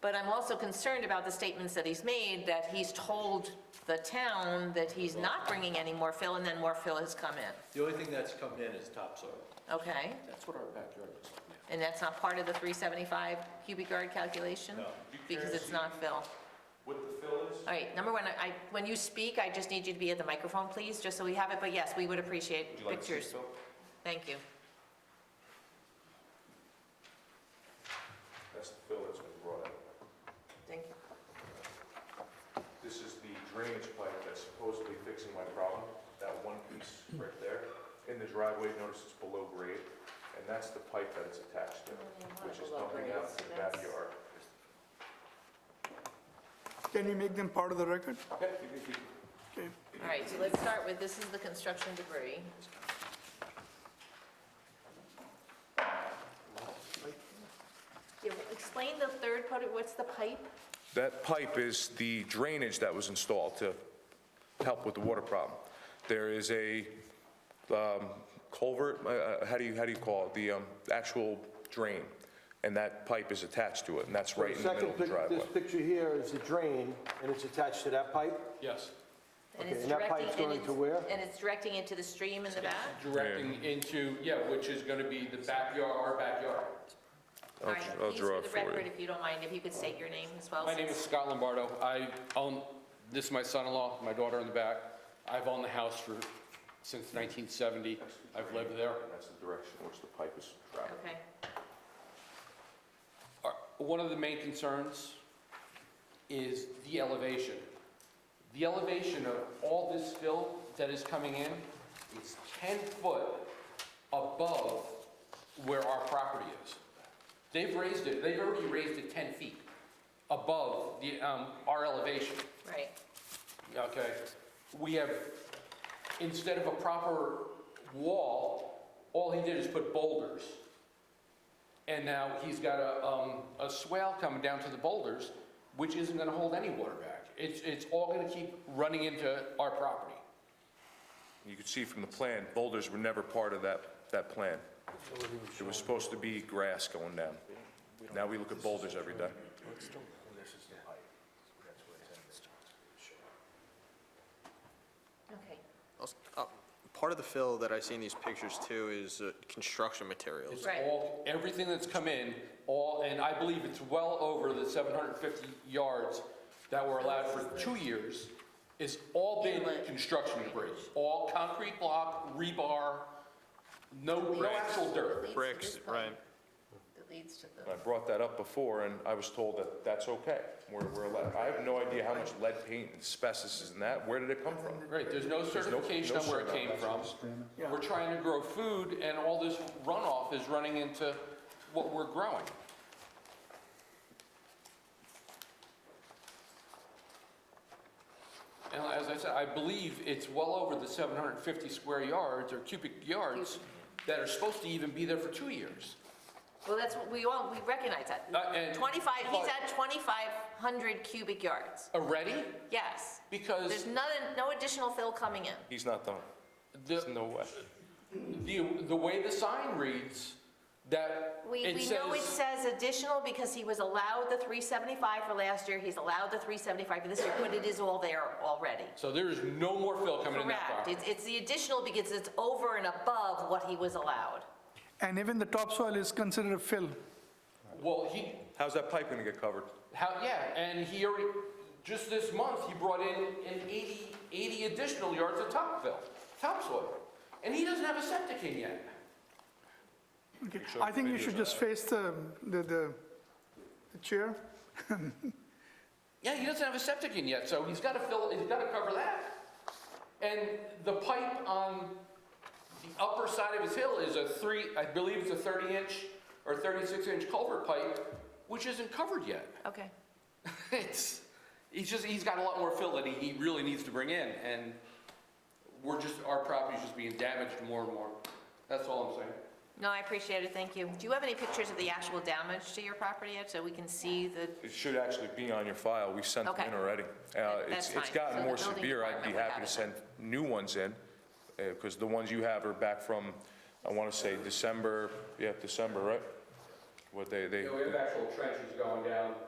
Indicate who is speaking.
Speaker 1: But I'm also concerned about the statements that he's made, that he's told the town that he's not bringing any more fill, and then more fill has come in.
Speaker 2: The only thing that's coming in is topsoil.
Speaker 1: Okay?
Speaker 2: That's what our backyard looks like now.
Speaker 1: And that's not part of the 375 cubic yard calculation?
Speaker 2: No.
Speaker 1: Because it's not fill.
Speaker 3: What the fill is?
Speaker 1: All right, number one, I, when you speak, I just need you to be at the microphone, please, just so we have it, but yes, we would appreciate
Speaker 3: Would you like to see
Speaker 1: pictures.
Speaker 3: the fill?
Speaker 1: Thank you.
Speaker 3: That's the fill that's been brought out.
Speaker 1: Thank you.
Speaker 3: This is the drainage pipe that's supposedly fixing my problem, that one piece right there. In the driveway, notice it's below grade, and that's the pipe that it's attached to, which is dumping out to the backyard.
Speaker 4: Can you make them part of the record?
Speaker 3: Okay, you can keep-
Speaker 4: Okay.
Speaker 1: All right, so let's start with, this is the construction debris. Yeah, Explain the third part, what's the pipe?
Speaker 3: That pipe is the drainage that was installed to help with the water problem. There is a um, culvert, uh, uh, how do you, how do you call it? The um, actual drain, and that pipe is attached to it, and that's right in the middle
Speaker 5: Second,
Speaker 3: of the
Speaker 5: pic-
Speaker 3: driveway.
Speaker 5: this picture here is the drain, and it's attached to that pipe?
Speaker 2: Yes,
Speaker 1: And
Speaker 5: Okay,
Speaker 1: it's
Speaker 5: and that
Speaker 1: directing-
Speaker 5: pipe's
Speaker 1: and
Speaker 5: going
Speaker 1: it's-
Speaker 5: to where?
Speaker 1: And it's directing into the stream in the back?
Speaker 2: directing into, yeah, which is gonna be the backyard, our backyard.
Speaker 1: All right,
Speaker 3: I'll
Speaker 1: please,
Speaker 3: draw
Speaker 1: for
Speaker 3: it
Speaker 1: the
Speaker 3: for you.
Speaker 1: record, if you don't mind, if you could state your name as well.
Speaker 2: My name is
Speaker 1: since-
Speaker 2: Scott Lombardo. I own, this is my son-in-law, my daughter in the back. I've owned the house for, since 1970. I've lived there.
Speaker 3: And that's the direction in which the pipe is traveling.
Speaker 1: Okay,
Speaker 2: Our- One of the main concerns is the elevation. The elevation of all this fill that is coming in is 10 foot above where our property is. They've raised it, they've already raised it 10 feet above the, um, our elevation.
Speaker 1: right.
Speaker 2: Okay, we have, instead of a proper wall, all he did is put boulders. And now he's got a, um, a swale coming down to the boulders, which isn't gonna hold any water back. It's, it's all gonna keep running into our property.
Speaker 3: You can see from the plan, boulders were never part of that, that plan. It was supposed to be grass going down. Now we look at boulders every day.
Speaker 1: Okay,
Speaker 6: Also, uh, Part of the fill that I see in these pictures too is uh, construction materials.
Speaker 2: It's
Speaker 1: Right.
Speaker 2: all, everything that's come in, all, and I believe it's well over the 750 yards that were allowed for two years, is all been construction debris. All concrete block, rebar, no, no actual dirt.
Speaker 6: Bricks, right.
Speaker 1: it leads to
Speaker 3: I
Speaker 1: the,
Speaker 3: brought that up before, and I was told that that's okay, we're, we're allowed. I have no idea how much lead paint and asbestos is in that, where did it come from?
Speaker 2: Right, there's no
Speaker 3: no-
Speaker 2: certification
Speaker 3: no
Speaker 2: on where it came from. We're trying to grow food, and all this runoff is running into what we're growing. And as I said, I believe it's well over the 750 square yards or cubic yards that are supposed to even be there for two years.
Speaker 1: well, that's, what we all, we recognize that.
Speaker 2: Uh, and-
Speaker 1: 25, he's at 2,500 cubic yards,
Speaker 2: Already?
Speaker 1: yes. There's
Speaker 2: Because
Speaker 1: none, no additional fill coming in.
Speaker 3: He's not done,
Speaker 2: the,
Speaker 3: no way.
Speaker 2: the, the way the sign reads, that
Speaker 1: We,
Speaker 2: it
Speaker 1: we
Speaker 2: says.
Speaker 1: know it says additional because he was allowed the 375 for last year, he's allowed the 375 for this year, but it is all there already.
Speaker 2: So there is no more fill coming in that
Speaker 1: Correct,
Speaker 2: property?
Speaker 1: it's, it's the additional because it's over and above what he was allowed.
Speaker 4: And even the topsoil is considered a fill.
Speaker 2: Well, he,
Speaker 3: How's that pipe gonna get covered?
Speaker 2: how, yeah, and he already, just this month, he brought in an 80, 80 additional yards of top fill, topsoil. And he doesn't have a septic in yet.
Speaker 4: Okay. I think you should just face the, the, the the chair.
Speaker 2: Yeah, he doesn't have a septic in yet, so he's gotta fill, he's gotta cover that. And the pipe on the upper side of his hill is a three, I believe it's a 30-inch or 36-inch culvert pipe, which isn't covered yet.
Speaker 1: Okay.
Speaker 2: It's, he's just, he's got a lot more fill that he, he really needs to bring in, and we're just, our property's just being damaged more and more. That's all I'm saying.
Speaker 1: No, I appreciate it, thank you. Do you have any pictures of the actual damage to your property yet, so we can see the,
Speaker 3: It should actually be on your file, we sent them
Speaker 1: Okay.
Speaker 3: in already. Uh,
Speaker 1: that's
Speaker 3: It's it's
Speaker 1: fine. So
Speaker 3: gotten
Speaker 1: the
Speaker 3: more
Speaker 1: building
Speaker 3: severe, I'd be
Speaker 1: department would have
Speaker 3: happy
Speaker 1: it
Speaker 3: to send new ones in, because the ones you have are back from, I wanna say December, yeah, December, right? What they, they,
Speaker 2: You know, we have actual trenches going down